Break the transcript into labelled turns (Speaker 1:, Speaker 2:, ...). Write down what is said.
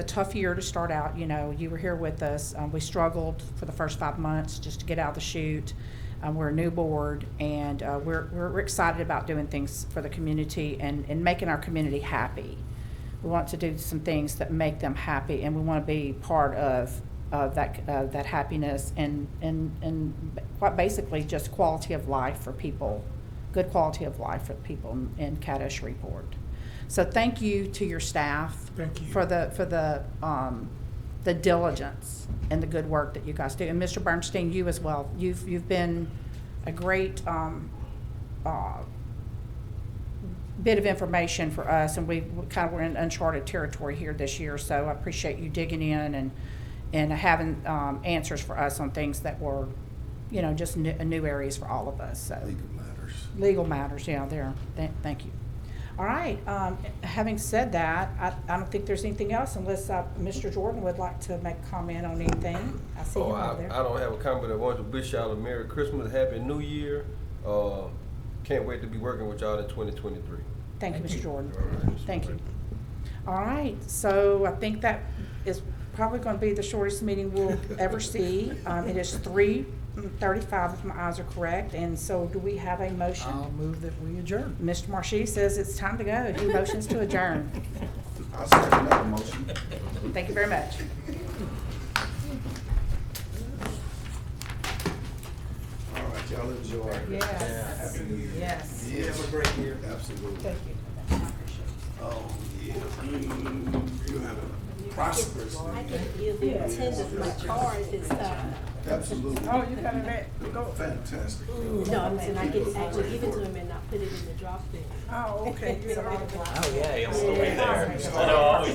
Speaker 1: a tough year to start out, you know, you were here with us, um, we struggled for the first five months just to get out of the chute. Um, we're a new board and, uh, we're, we're we're excited about doing things for the community and, and making our community happy. We want to do some things that make them happy and we want to be part of, of that, uh, that happiness and, and, and quite basically just quality of life for people, good quality of life for people in Caddo Shreveport. So thank you to your staff.
Speaker 2: Thank you.
Speaker 1: For the, for the, um, the diligence and the good work that you guys do. And Mr. Bernstein, you as well. You've, you've been a great, um, uh, bit of information for us, and we kind of were in uncharted territory here this year, so I appreciate you digging in and, and having, um, answers for us on things that were, you know, just new, new areas for all of us, so.
Speaker 3: legal matters.
Speaker 1: Legal matters, yeah, there. Th- Thank you. All right, um, having said that, I, I don't think there's anything else unless, uh, Mr. Jordan would like to make comment on anything. I see him
Speaker 4: Oh, I,
Speaker 1: over
Speaker 4: I
Speaker 1: there.
Speaker 4: don't have a comment. I wanted to wish y'all a Merry Christmas, Happy New Year. Uh, can't wait to be working with y'all in 2023.
Speaker 1: Thank you, Mr. Jordan.
Speaker 4: All right.
Speaker 1: Thank you. All right, so I think that is probably gonna be the shortest meeting we'll ever see. Um, it is three thirty-five, if my eyes are correct, and so do we have a
Speaker 2: I'll
Speaker 1: motion?
Speaker 2: move that we adjourn.
Speaker 1: Mr. Marshy says it's time to go. He motions to adjourn.
Speaker 3: I'll second that motion.
Speaker 1: Thank you very much.
Speaker 3: All right, y'all enjoy.
Speaker 1: Yes,
Speaker 3: Happy New Year.
Speaker 1: yes.
Speaker 3: Yeah, have a great year. Absolutely.
Speaker 1: Thank you. I appreciate it.
Speaker 3: Oh, yeah. Mm, You have a prosperous New
Speaker 5: I
Speaker 3: Year.
Speaker 5: can give you a tens of my car if it's, uh,
Speaker 3: Absolutely.
Speaker 1: Oh, you got it, go,
Speaker 3: Fantastic.
Speaker 5: no, I'm saying I can actually give it to him and not put it in the drop bin.
Speaker 1: oh, okay, you're all right.
Speaker 6: Oh, yeah, he'll still be there. I know, I'll be